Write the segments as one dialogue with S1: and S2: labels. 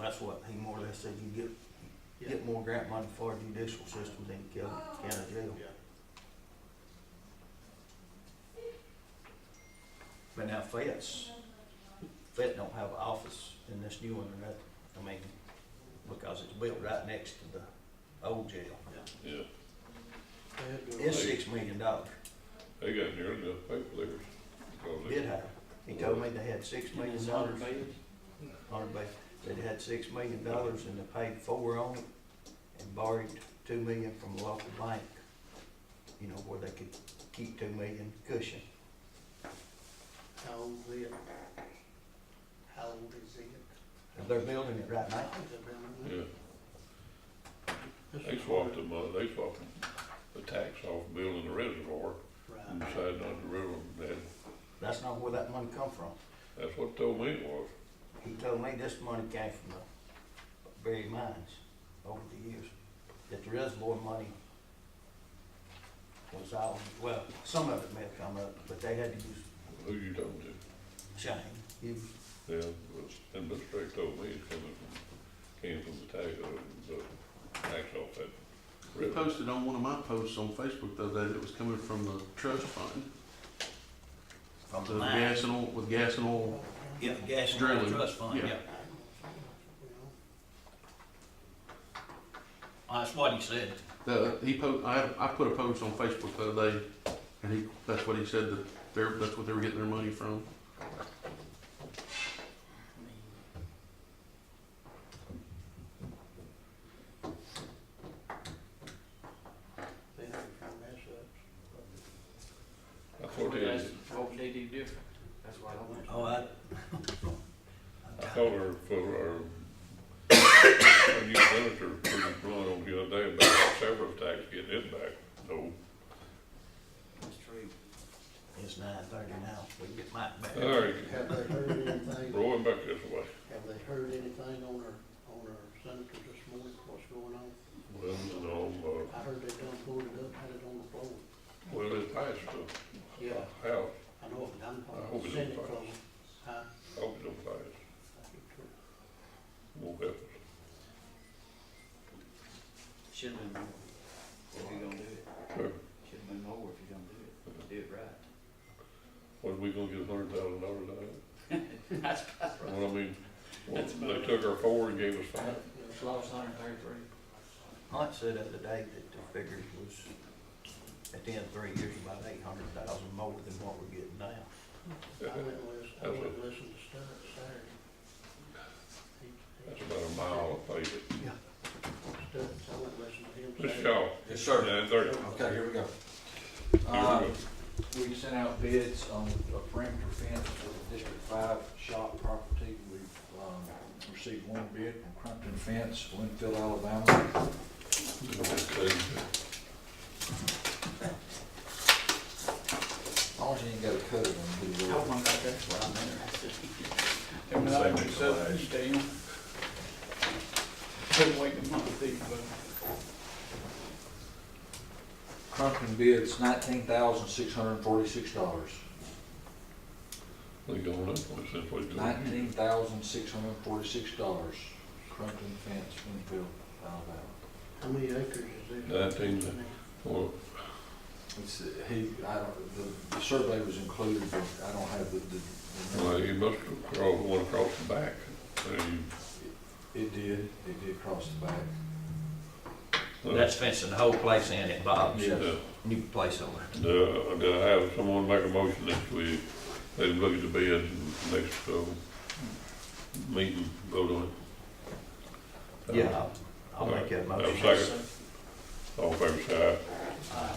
S1: that's what he more or less said, you get, get more grant money for judicial system than Kelly County Jail.
S2: Yeah.
S1: But now Fed's, Fed don't have an office in this new one or nothing, I mean, because it's built right next to the old jail.
S3: Yeah,
S1: It's six million dollars,
S3: they got nearly enough paper there. because they-
S1: did have, he told me they had six million dollars. Hundred base, they had six million dollars and they paid four on it and borrowed two million from a local bank. You know, where they could keep two million cushion.
S4: How old is it? How old is it?
S1: They're building it right now.
S4: Is it around
S3: Yeah,
S4: that?
S3: they swapped them, uh, they swapped the tax off building the reservoir and
S4: Right.
S3: decided not to river them. That,
S1: That's not where that money come from.
S3: that's what told me it was.
S1: He told me this money came from the buried mines over the years. That the reservoir money was all, well, some of it may have come up, but they had to use
S3: Who you talking to?
S1: chain. You-
S3: Yeah, but, and Mr. Drake told me it's coming from, came from the tax, uh, the tax off that
S5: We
S3: river.
S5: posted on one of my posts on Facebook the other day that it was coming from the trust fund,
S1: From
S5: the gas and oil, with gas and oil.
S1: Yeah, gas and
S5: Drilling,
S1: trust fund,
S5: yeah.
S1: yeah. That's what he said.
S5: The, he po, I, had- I put a post on Facebook the other day, and he, that's what he said, that they're, that's what they were getting their money from.
S4: They had some mess ups.
S3: That's what it is.
S6: What would they do different? That's why I don't.
S1: Oh, I.
S3: I called her for our, our new senator, pretty blunt on the other day about the severance tax getting it back. No,
S6: That's true.
S1: It's nine thirty now, we get Mike back.
S3: all right,
S4: Have they heard anything,
S3: rolling back this way.
S4: have they heard anything on our, on our senators this morning, what's going on?
S3: Well, no, uh,
S4: I heard they done pulled it up, had it on the floor.
S3: well, it passed
S4: Yeah,
S3: the house,
S4: I know it done,
S3: I hope it
S4: Senate
S3: don't
S4: floor. Huh?
S3: I hope it don't pass, won't help us.
S6: Should've been more if you're gonna do it.
S3: Sure.
S6: Should've been more if you're gonna do it. Do it right.
S3: What, are we gonna get a hundred thousand dollars out of
S6: That's about
S3: it? Well, I mean, well,
S6: That's about
S3: er they
S6: it.
S3: took our four and gave us five.
S6: It's lost hundred thirty-three.
S1: Hunt said the other day that the figures was, at the end of three years, about eight hundred thousand more than what we're getting now.
S4: I went and listened, I went and listened to Sturr Saturday. He- he-
S3: That's about a mile of paper.
S4: Sturr, I went and listened to him
S3: Mr.
S4: Saturday.
S3: Shaw,
S7: Yes, sir.
S3: nine thirty.
S7: Okay, here we go. Uh,
S3: Here
S7: We sent out bids on a perimeter fence for the District Five shop property. We've um, received one bid from Crumpton Fence, Winfield, Alabama.
S3: we go. Okay.
S7: As long as you ain't got a cut it on the
S6: I
S7: road.
S6: wonder if that's what I'm interested in.
S3: Same
S6: Them and I
S3: as
S6: do something,
S3: last.
S6: you damn. Couldn't wait a month, did you, bud?
S7: Crumpton bids nineteen thousand six hundred and forty-six dollars.
S3: They going up, since we do.
S7: Nineteen thousand six hundred and forty-six dollars. Crumpton Fence, Winfield, Alabama.
S4: How many acres is this?
S3: Nineteen. Well,
S7: It's, uh, he, I don't, the- the survey was included, but I don't have the, the- the.
S3: Well, you must have crawled one across the back. And
S7: It did, it did cross the back.
S3: you-
S1: That's fencing the whole place in at Bob's,
S7: Yeah.
S3: Uh,
S1: new place over.
S3: Do, do uh, I have someone make a motion next week? They can look at the bid and next, uh, meeting, vote on it.
S1: Yeah, I'll- I'll make that
S3: Have a
S1: motion. Uh,
S3: second? All in favor, say aye.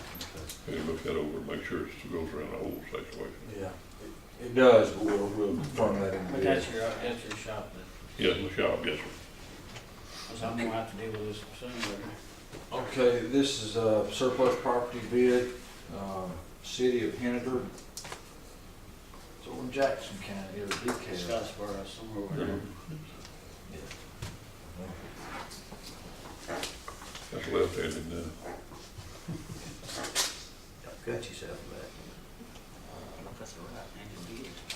S3: Hey, look that over, and make sure it goes around the whole situation.
S7: Yeah. It- It does, but we'll, we'll confirm that in the
S6: But
S7: bid.
S6: that's your, that's your shop,
S3: Yes, in the shop, yes, sir.
S6: because I'm gonna have to deal with this sooner or later.
S7: Okay, this is a surplus property bid, um, city of Henniger. It's over in Jackson County, or DeKalb.
S6: Scottsboro, somewhere over there.
S3: That's left-handed now.
S1: Don't Cut yourself back.
S6: That's all right, man, just do it.